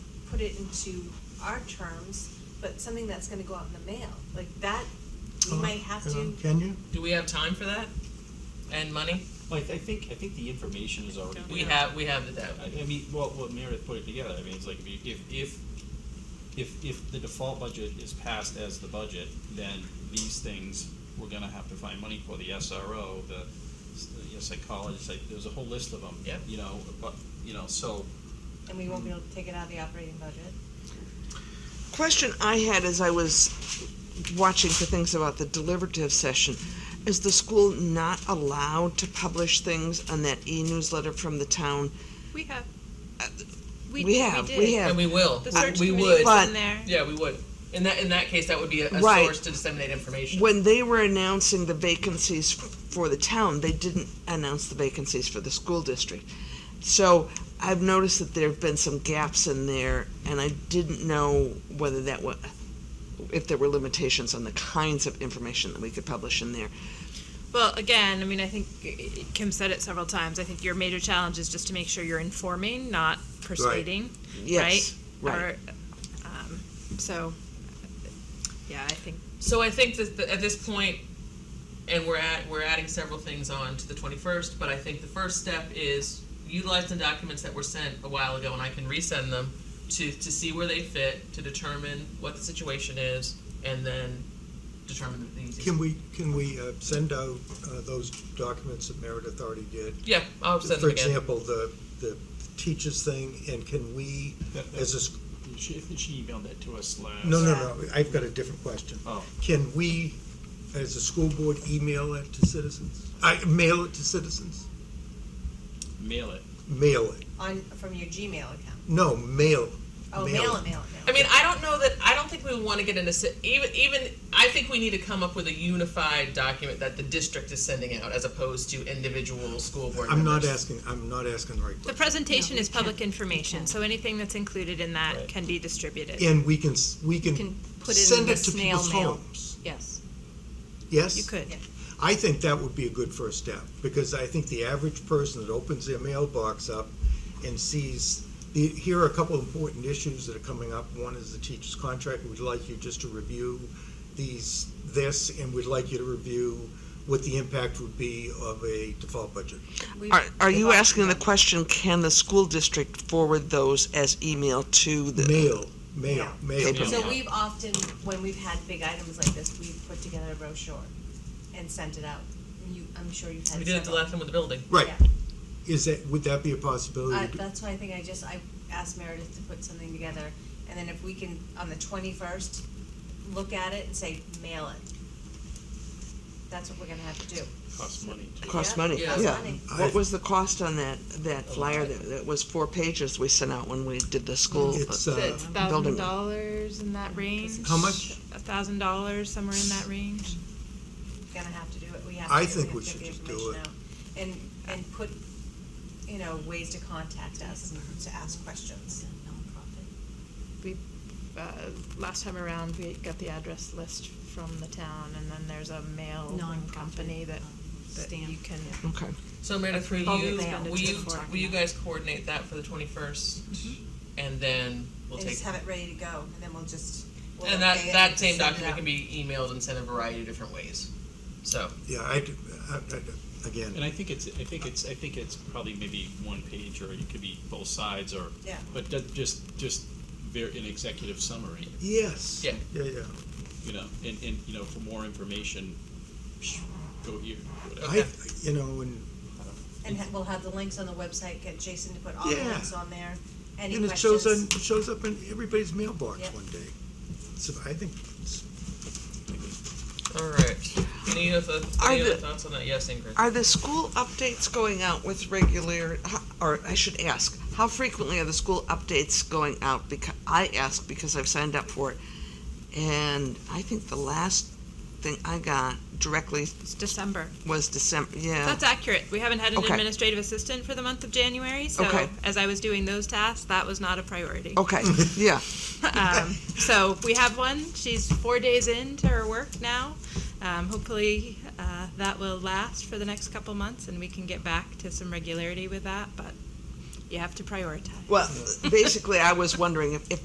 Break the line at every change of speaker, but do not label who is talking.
put it into our terms, but something that's gonna go out in the mail, like that, we
Uh,
might have
you know,
to.
Can you?
Do we have time for that? And money?
Well, I, I think, I think the information is already
We
there.
have, we have the debt.
I, I mean, well, what Meredith put it together, I mean, it's like, if, you- if, if, if, if the default budget is passed as the budget, then these things, we're gonna have to find money for, the SRO, the, s- you know, psychologist, like, there's a whole list of them.
Yeah.
You know, but, you know, so,
And we won't be able to take it out of the operating budget.
question I had as I was watching for things about the deliberative session is the school not allowed to publish things on that e-newsletter from the town?
We have. uh,
we we have, we did. have.
And we will.
The
We-
search
We
committee
would.
was-
was
But-
in there.
Yeah, we would. In that, in that case, that would be a, a
Right.
source to disseminate information.
When they were announcing the vacancies f- for the town, they didn't announce the vacancies for the school district. So I've noticed that there have been some gaps in there, and I didn't know whether that was, if there were limitations on the kinds of information that we could publish in there.
Well, again, I mean, I think uh, Kim said it several times. I think your major challenge is just to make sure you're informing, not persuading,
Yes,
right?
right.
Or, um, so, yeah, I think
So I think that the, at this point, and we're at we're adding several things on to the twenty first. But I think the first step is utilize the documents that were sent a while ago, and I can resend them to to see where they fit, to determine what the situation is, and then determine the easiest.
Can we, can we uh, send out uh, those documents that Meredith already did?
yeah, I'll send
For
them again.
example, the, the teachers thing, and can we,
That- that-
as a, s-
she, she emailed that to us last.
no, no, no, I've got a different question.
Oh.
Can we, as a school board, email it to citizens? I, mail it to citizens?
Mail it.
Mail it.
On, from your Gmail account.
No, mail.
Oh,
Mail
mail it,
it.
mail it,
I
mail it.
mean, I don't know that. I don't think we want to get into si- even even. I think we need to come up with a unified document that the district is sending out, as opposed to individual school board.
I'm not
members.
asking, I'm not asking the right
the
question.
presentation is public information. So anything that's included in that
Right.
can be distributed.
And we can, s- we can
Can put it in
send
the
it to
snail
people's
mail.
homes.
Yes.
Yes?
You could.
Yeah.
I think that would be a good first step, because I think the average person that opens their mailbox up and sees, the- here are a couple of important issues that are coming up. One is the teacher's contract, we'd like you just to review these, this, and we'd like you to review what the impact would be of a default budget.
We-
Are, are you
we've-
asking the question, can the school district forward those as email to the?
Mail, mail, mail.
Paper.
So we've often, when we've had big items like this, we've put together a brochure and sent it out. You, I'm sure you've had
We did it the
several.
last time with the building.
Right,
Yeah.
is that, would that be a
Uh,
possibility?
that's why I think I just, I asked Meredith to put something together, and then if we can, on the twenty-first, look at it and say, mail it. That's what we're gonna have to do.
Costs money to.
Cost
Yeah,
money,
costs
yeah.
money.
What was the cost on that, that
A
flyer
lot.
that, that was four pages we sent out when we did the school?
It's,
uh,
uh,
That's
building.
thousand dollars in that range.
How much?
A thousand dollars somewhere in that range.
Gonna have to do it, we have to.
I
do it.
think
have
we
to
should
get the
just do
information out. And, and put, you know, ways to contact us and to ask questions.
uh, last time around, we got the address list from the town, and then there's a mail
Non-profit,
company that, that
stamp.
you can.
Okay.
So Meredith, will
Probably
you,
banned
will you,
before.
will you guys coordinate that for the twenty And then
And
we'll take,
Mm-hmm. just have it ready to go, and then we'll just. we'll
and that,
update it
that
and send
same
it
document
out.
can be emailed and sent a variety of different ways. So,
Yeah, I, I, I- again.
And I think it's, I think it's, I think it's probably maybe one page, or it could be both sides, or.
Yeah.
But that, just, just ver an executive summary,
Yes.
Yeah.
Yeah, yeah.
you know, and, and, you know, for more information, psh, go here, whatever.
I, you know, and,
And ha- we'll have the links on the website, get Jason to put all the
Yeah.
links on there, any
and
questions.
it shows on, it shows up in everybody's mailbox
Yep.
one day. So I think, it's-
alright, any other,
Are
any other
the-
thoughts on that? Yes, Ingrid?
Are the school updates going out with regular, or I should ask, how frequently are the school updates going out? Because, I ask because I've signed up for it. And I think the last thing I got directly
It's December.
was December, yeah.
That's accurate. We haven't had an
Oh. Okay.
administrative assistant for the month of January, so
Okay. Oh.
as I was doing those tasks, that was not a priority.
Okay, yeah.
Um, so we have one. She's four days into her work now. Um, hopefully, uh, that will last for the next couple months, and we can get back to some regularity with that. But you have to prioritize.
Well, basically, I was wondering if, if